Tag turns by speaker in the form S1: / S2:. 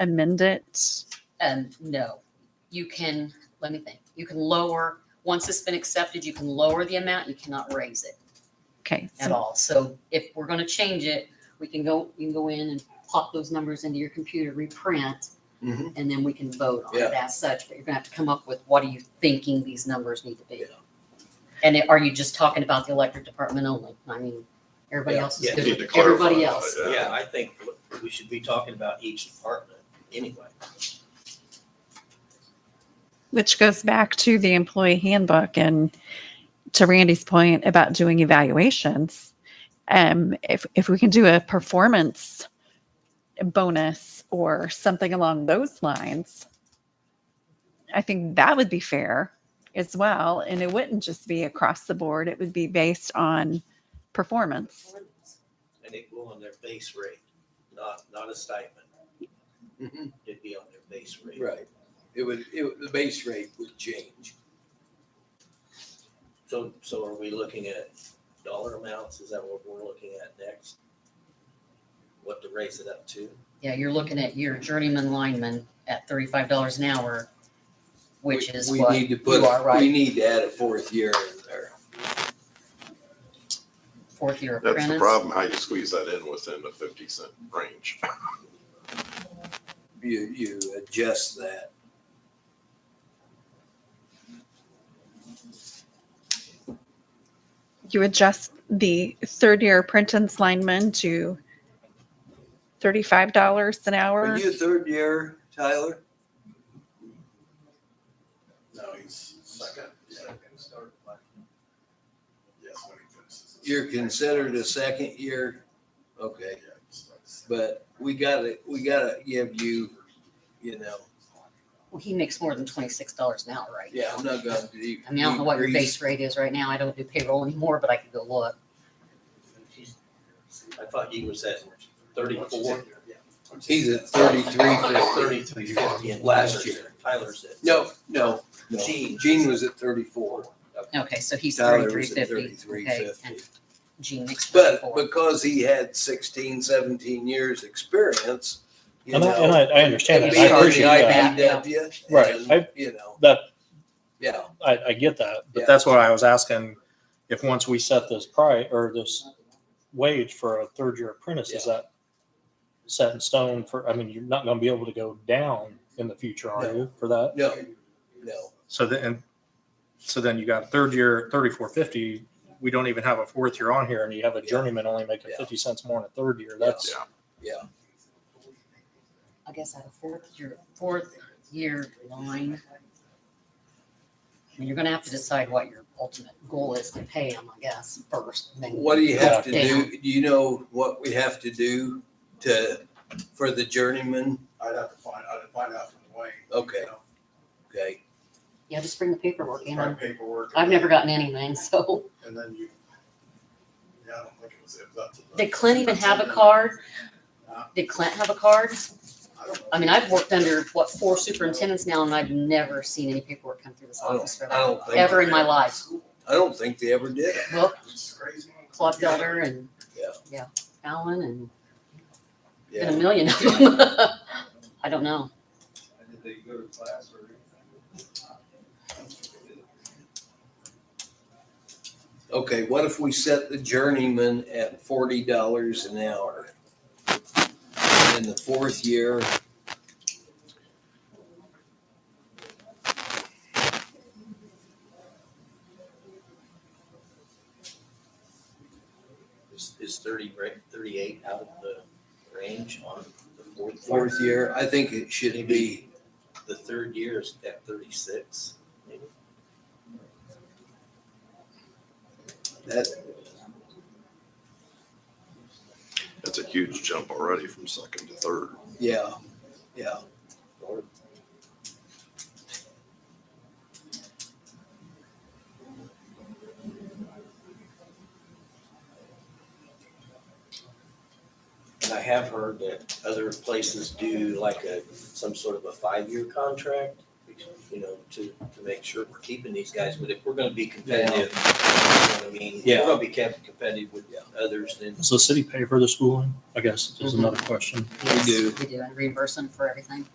S1: amend it?
S2: Um, no, you can, let me think, you can lower, once it's been accepted, you can lower the amount, you cannot raise it
S1: Okay,
S2: at
S1: so-
S2: all. So if we're gonna change it, we can go, you can go in and pop those numbers into your computer, reprint,
S3: Mhm.
S2: and then we can vote on
S3: Yeah.
S2: it as such, but you're gonna have to come up with what are you thinking these numbers need to be? And are you just talking about the electric department only? I mean, everybody
S3: Yeah,
S2: else is
S4: Yeah,
S2: good
S4: need to
S2: with
S4: clarify
S2: everybody
S4: that,
S2: else.
S3: Yeah,
S4: Yeah,
S3: I think we should be talking about each department anyway.
S1: which goes back to the employee handbook and to Randy's point about doing evaluations. Um, if, if we can do a performance bonus or something along those lines, I think that would be fair as well. And it wouldn't just be across the board, it would be based on performance.
S3: And it go on their base rate, not, not a stipend.
S5: Mhm.
S3: It'd be on their base rate.
S5: Right. It would, it, would- the base rate would change.
S3: So, so are we looking at dollar amounts? Is that what we're looking at next? What to raise it up to?
S2: Yeah, you're looking at your journeyman lineman at thirty-five dollars an hour, which
S5: We-
S2: is
S5: we
S2: what
S5: need to
S2: you
S5: put-
S2: are
S5: We
S2: right,
S5: need to add a fourth year in there.
S2: fourth year apprentice.
S4: that's the problem, how you squeeze that in within the fifty cent range.
S5: You, you adjust that.
S1: You adjust the third year apprentice lineman to $35 an hour.
S5: Are you a third year, Tyler?
S4: No, he's second, second start. Yes, when he finishes.
S5: You're considered a second year? Okay, but we gotta, we gotta give you, you know,
S2: Well, he makes more than twenty-six dollars an hour, right?
S5: yeah, I'm not gonna.
S2: I mean, I don't know what your
S5: decrease-
S2: base rate is right now. I don't do payroll anymore, but I could go look.
S3: I thought he was at thirty-four.
S5: He's at thirty-three fifty.
S3: Thirty-three fifty. and
S5: Last
S3: Tyler's-
S5: year.
S3: Tyler's at.
S5: No, no, no.
S3: Gene.
S5: Gene was at thirty-four.
S2: Okay, so he's
S5: Tyler
S2: thirty-three
S5: was at
S2: fifty.
S5: thirty-three
S2: Okay,
S5: fifty.
S2: and Gene makes
S5: But
S2: thirty-four.
S5: because he had 16, 17 years experience, you
S6: And I, and
S5: know.
S6: I, I understand
S2: and
S6: that.
S5: being
S6: I
S2: you
S5: on the
S6: appreciate that.
S5: IBW,
S6: Right.
S5: and,
S6: I-
S5: You know,
S6: That,
S5: yeah,
S6: I, I get that,
S5: Yeah.
S6: but that's what I was asking. If once we set this price or this wage for a third year apprentice, is that set in stone for, I mean, you're not gonna be able to go down in the future, are you, for that?
S5: no, no.
S6: So then, and so then you got third year, thirty-four fifty, we don't even have a fourth year on here and you have a
S5: Yeah.
S6: journeyman only making
S5: Yeah.
S6: fifty cents more in a third year. That's,
S4: Yeah.
S2: I guess at a fourth year, fourth year line. I mean, you're gonna have to decide what your ultimate goal is to pay him, I guess, first. and then-
S5: What do you have to
S2: Yeah.
S5: do? Do you know what we have to do to, for the journeyman?
S7: I'd have to find, I'd find out from Wayne.
S5: Okay, okay.
S2: Yeah, just bring the paperwork in.
S7: Find paperwork.
S2: I've never gotten anything, so.
S7: And then you, yeah, I don't think it was, it was up to. the-
S2: Did Clint even have a card? Did Clint have a card?
S7: I don't know.
S2: I mean, I've worked under, what, four superintendents now, and I've never seen any paperwork come through this
S5: I
S2: office
S5: don't,
S2: for
S5: I
S2: that.
S5: don't think.
S2: Ever in my life.
S5: I don't think they ever did.
S2: Well,
S7: It's crazy.
S2: Claude Felder and,
S5: Yeah.
S2: yeah, Allen and been a
S5: Yeah,
S2: million of them. I don't know.
S7: Did they go to class or anything?
S5: okay, what if we set the journeyman at forty dollars an hour? In the fourth year,
S3: Is, is thirty, ra- thirty-eight out of the range on the fourth?
S5: fourth year, I think it should be,
S3: The third year is at thirty-six. maybe?
S5: that,
S4: That's a huge jump already from second to third.
S5: yeah, yeah.
S3: Or- And I have heard that other places do like a, some sort of a five-year contract. you know, to, to make sure we're keeping these guys, but if we're gonna be competitive, you know what I mean? If
S5: Yeah.
S3: We're gonna be kept competitive with others, then
S5: Mm-hmm.
S6: Does the city pay for the schooling? I guess is another question.
S5: We do.
S2: We do, and reimburse them for everything.